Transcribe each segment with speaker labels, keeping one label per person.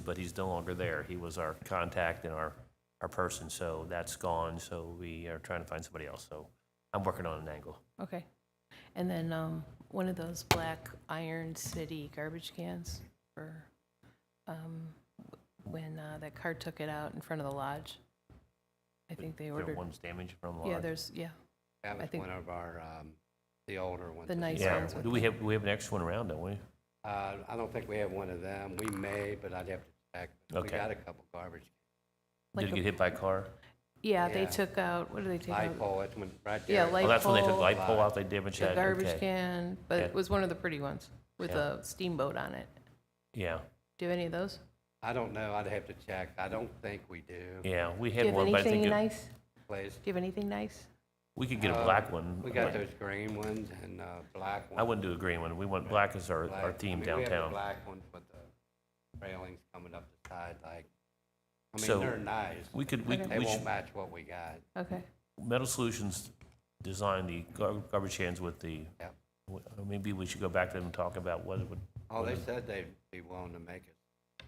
Speaker 1: but he's no longer there. He was our contact and our, our person, so that's gone, so we are trying to find somebody else, so I'm working on an angle.
Speaker 2: Okay. And then um, one of those black Iron City garbage cans for um, when uh, that car took it out in front of the lodge. I think they
Speaker 1: There
Speaker 2: ordered,
Speaker 1: one's damaged from
Speaker 2: yeah,
Speaker 1: lodge.
Speaker 2: there's, yeah,
Speaker 3: That
Speaker 2: I
Speaker 3: was
Speaker 2: think-
Speaker 3: one of our, um, the older ones.
Speaker 2: The
Speaker 3: that we
Speaker 2: nice
Speaker 3: had.
Speaker 1: Yeah,
Speaker 2: ones with-
Speaker 1: do we have, we have an extra one around, don't we?
Speaker 3: Uh, I don't think we have one of them. We may, but I'd have to check. We
Speaker 1: Okay.
Speaker 3: got a couple garbage.
Speaker 1: Did
Speaker 2: Like
Speaker 1: it
Speaker 2: a-
Speaker 1: get hit by a car?
Speaker 2: yeah, they
Speaker 3: Yeah.
Speaker 2: took out, what did they take
Speaker 3: Light
Speaker 2: out?
Speaker 3: pole, it's one right
Speaker 2: Yeah,
Speaker 3: there.
Speaker 1: Well,
Speaker 2: light
Speaker 1: Oh, that's when they took
Speaker 2: pole,
Speaker 1: light pole out, they damaged
Speaker 2: The
Speaker 1: that,
Speaker 2: garbage
Speaker 1: okay.
Speaker 2: can, but
Speaker 1: Yeah.
Speaker 2: it was one of the pretty ones with
Speaker 1: Yeah.
Speaker 2: a steamboat on it.
Speaker 1: Yeah,
Speaker 2: Do you have any of those?
Speaker 3: I don't know. I'd have to check. I don't think we do.
Speaker 1: yeah, we
Speaker 2: Do you
Speaker 1: had
Speaker 2: have
Speaker 1: one, but I
Speaker 2: anything
Speaker 1: think it-
Speaker 2: nice?
Speaker 3: Place,
Speaker 2: Do you have anything nice?
Speaker 1: we could get a
Speaker 3: Uh,
Speaker 1: black one.
Speaker 3: we got
Speaker 1: but
Speaker 3: those green ones and, uh, black ones.
Speaker 1: I wouldn't do a green one, we want, black as our,
Speaker 3: black-
Speaker 1: our
Speaker 3: I
Speaker 1: theme
Speaker 3: mean, We have the
Speaker 1: downtown.
Speaker 3: black ones with the railings coming up the side, like, I
Speaker 1: So-
Speaker 3: mean, they're nice.
Speaker 1: We could, we,
Speaker 3: They
Speaker 1: we should,
Speaker 3: won't match what we got.
Speaker 2: Okay.
Speaker 1: Metal Solutions designed the gar- garbage cans with the,
Speaker 3: Yep.
Speaker 1: w- uh, maybe we should go back to them and talk about what it would,
Speaker 3: Oh, they said they'd be willing to make it,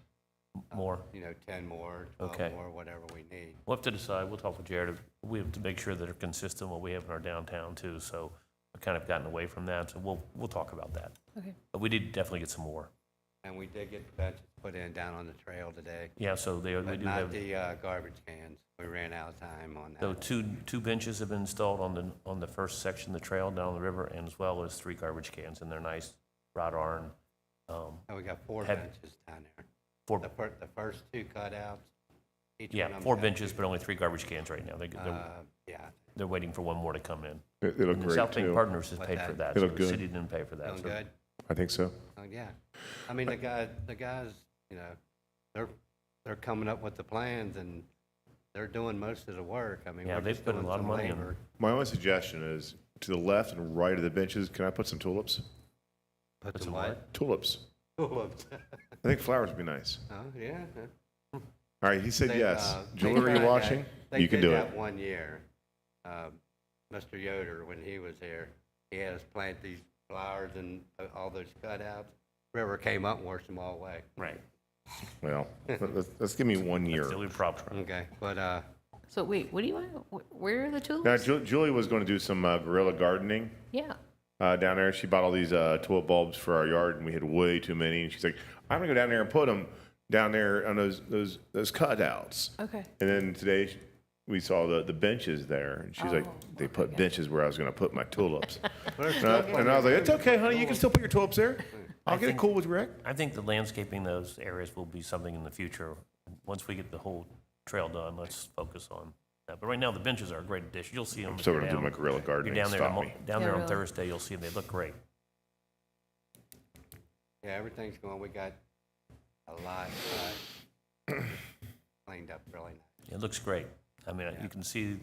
Speaker 1: more.
Speaker 3: you know, ten more,
Speaker 1: Okay.
Speaker 3: twelve more, whatever we need.
Speaker 1: We'll have to decide, we'll talk with Jared, we have to make sure that they're consistent with what we have in our downtown too, so I've kind of gotten away from that, so we'll, we'll talk about that.
Speaker 2: Okay.
Speaker 1: But we did definitely get some more.
Speaker 3: And we did get the benches put in down on the trail today,
Speaker 1: Yeah, so they, they
Speaker 3: but
Speaker 1: do
Speaker 3: not
Speaker 1: have,
Speaker 3: the uh, garbage cans. We ran out of time on
Speaker 1: so
Speaker 3: that.
Speaker 1: two, two benches have been installed on the, on the first section of the trail down the river, and as well as three garbage cans, and they're nice, wrought iron. um,
Speaker 3: And we got four
Speaker 1: Had-
Speaker 3: benches down there.
Speaker 1: Four,
Speaker 3: The fir, the first two cutouts. each one of
Speaker 1: yeah,
Speaker 3: them
Speaker 1: four
Speaker 3: got-
Speaker 1: benches, but only three garbage cans right now, they, they're,
Speaker 3: Uh, Yeah,
Speaker 1: they're waiting for one more to come in.
Speaker 4: It, it looked
Speaker 1: And the
Speaker 4: great
Speaker 1: South Bank
Speaker 4: too.
Speaker 1: Partners has
Speaker 3: Like
Speaker 1: paid
Speaker 3: that.
Speaker 1: for that,
Speaker 4: It
Speaker 1: so
Speaker 4: looked
Speaker 1: the
Speaker 4: good.
Speaker 1: city didn't pay for that.
Speaker 3: feeling
Speaker 1: so-
Speaker 3: good?
Speaker 4: I think so.
Speaker 3: Oh, yeah. I mean, the guy, the guys, you know, they're, they're coming up with the plans and they're doing most of the work. I mean,
Speaker 1: Yeah,
Speaker 3: we're
Speaker 1: they've
Speaker 3: just
Speaker 1: put a
Speaker 3: doing
Speaker 1: lot of
Speaker 3: some
Speaker 1: money in.
Speaker 3: labor.
Speaker 4: My only suggestion is to the left and right of the benches. Can I put some tulips?
Speaker 3: Put
Speaker 1: That's
Speaker 3: some
Speaker 1: a
Speaker 3: what?
Speaker 4: Tulips.
Speaker 3: Tulips.
Speaker 4: I think flowers would be nice.
Speaker 3: Oh, yeah. huh.
Speaker 4: All right, he said
Speaker 3: They,
Speaker 4: yes.
Speaker 3: uh, they
Speaker 4: Jewelry
Speaker 3: tried that-
Speaker 4: washing,
Speaker 3: they
Speaker 4: you can
Speaker 3: did
Speaker 4: do
Speaker 3: that
Speaker 4: it.
Speaker 3: One year, um, Mr. Yoder, when he was here, he had us plant these flowers and uh, all those cutouts. River came up and washed them all away.
Speaker 1: Right.
Speaker 4: Well, let- let's, let's give me one year.
Speaker 1: The only problem.
Speaker 3: Okay, but, uh,
Speaker 2: So wait, what do you want? Wh- Where are the
Speaker 4: Now,
Speaker 2: tulips?
Speaker 4: Ju- Julie was going to do some uh, guerrilla gardening
Speaker 2: Yeah.
Speaker 4: uh, down there. She bought all these uh, tulip bulbs for our yard, and we had way too many. And she's like, "I'm gonna go down there and put them down there on those those those cutouts."
Speaker 2: Okay.
Speaker 4: And then today sh- we saw the, the benches there, and she's like,
Speaker 2: Oh,
Speaker 4: they put benches where I was going to put my tulips.
Speaker 3: there's
Speaker 4: and, I, and I was like, it's okay, honey, you can still put your tulips there. I'll get it
Speaker 1: think-
Speaker 4: cool with Rick.
Speaker 1: I think the landscaping those areas will be something in the future. Once we get the whole trail done, let's focus on that. But right now, the benches are a great addition. You'll see them.
Speaker 4: So we're going to do my gorilla
Speaker 1: You're
Speaker 4: gardening.
Speaker 1: down there,
Speaker 4: Stop
Speaker 1: on-
Speaker 4: me.
Speaker 1: down
Speaker 2: Yeah,
Speaker 1: there on
Speaker 2: really.
Speaker 1: Thursday, you'll see them. They look great.
Speaker 3: yeah, everything's going, we got a lot, uh, cleaned up really nice.
Speaker 1: It looks great. I mean, you can see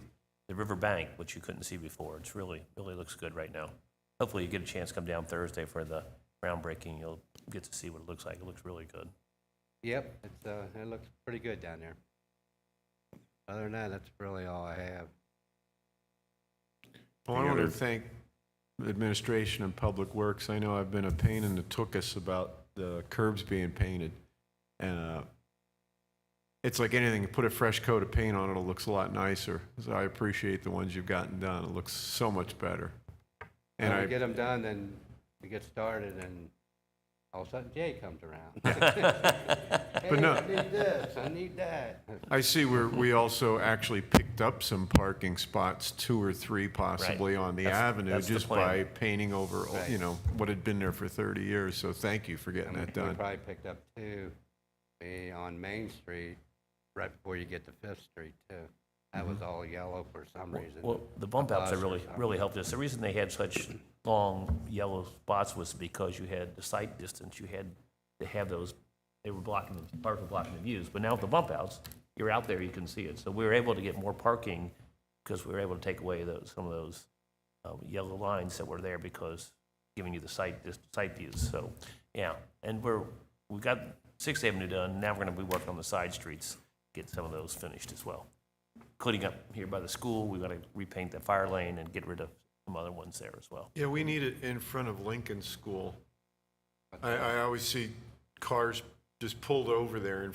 Speaker 1: the river bank, which you couldn't see before. It's really, really looks good right now. Hopefully, you get a chance to come down Thursday for the groundbreaking. You'll get to see what it looks like. It looks really good.
Speaker 3: Yep, it's, uh, it looks pretty good down there. Other than that, that's really all I have.
Speaker 5: Well, I
Speaker 4: Any
Speaker 5: want to
Speaker 4: other-
Speaker 5: thank administration and Public Works. I know I've been a pain in the tuchus about the curbs being painted. And uh, it's like anything, you put a fresh coat of paint on it, it looks a lot nicer. So I appreciate the ones you've gotten done. It looks so much better. And
Speaker 3: When we
Speaker 5: I,
Speaker 3: get them done, then we get started and all of a sudden Jay comes around. Hey,
Speaker 5: no-
Speaker 3: I need this, I need that.
Speaker 5: I see we're, we also actually picked up some parking spots, two or three possibly, on the
Speaker 1: That's-
Speaker 5: avenue
Speaker 1: that's the
Speaker 5: just by
Speaker 1: plan.
Speaker 5: painting over, you
Speaker 3: Right.
Speaker 5: know, what had been there for 30 years. So thank you for getting
Speaker 3: And we
Speaker 5: that done.
Speaker 3: probably picked up two, eh, on Main Street, right before you get to Fifth Street too. That
Speaker 5: Mm-hmm.
Speaker 3: was all yellow for some reason.
Speaker 1: Well, the bump outs have
Speaker 3: bus or
Speaker 1: really,
Speaker 3: something.
Speaker 1: really helped us. The reason they had such long yellow spots was because you had the sight distance, you had to have those, they were blocking, the parking was blocking the views. But now with the bump outs, you're out there, you can see it. So we were able to get more parking because we were able to take away those, some of those uh, yellow lines that were there because giving you the sight, dis- sight views. So, yeah, and we're, we got Sixth Avenue done, now we're gonna be working on the side streets, get some of those finished as well including up here by the school, we got to repaint that fire lane and get rid of some other ones there as well.
Speaker 5: Yeah, we need it in front of Lincoln School. I, I always see cars just pulled over there in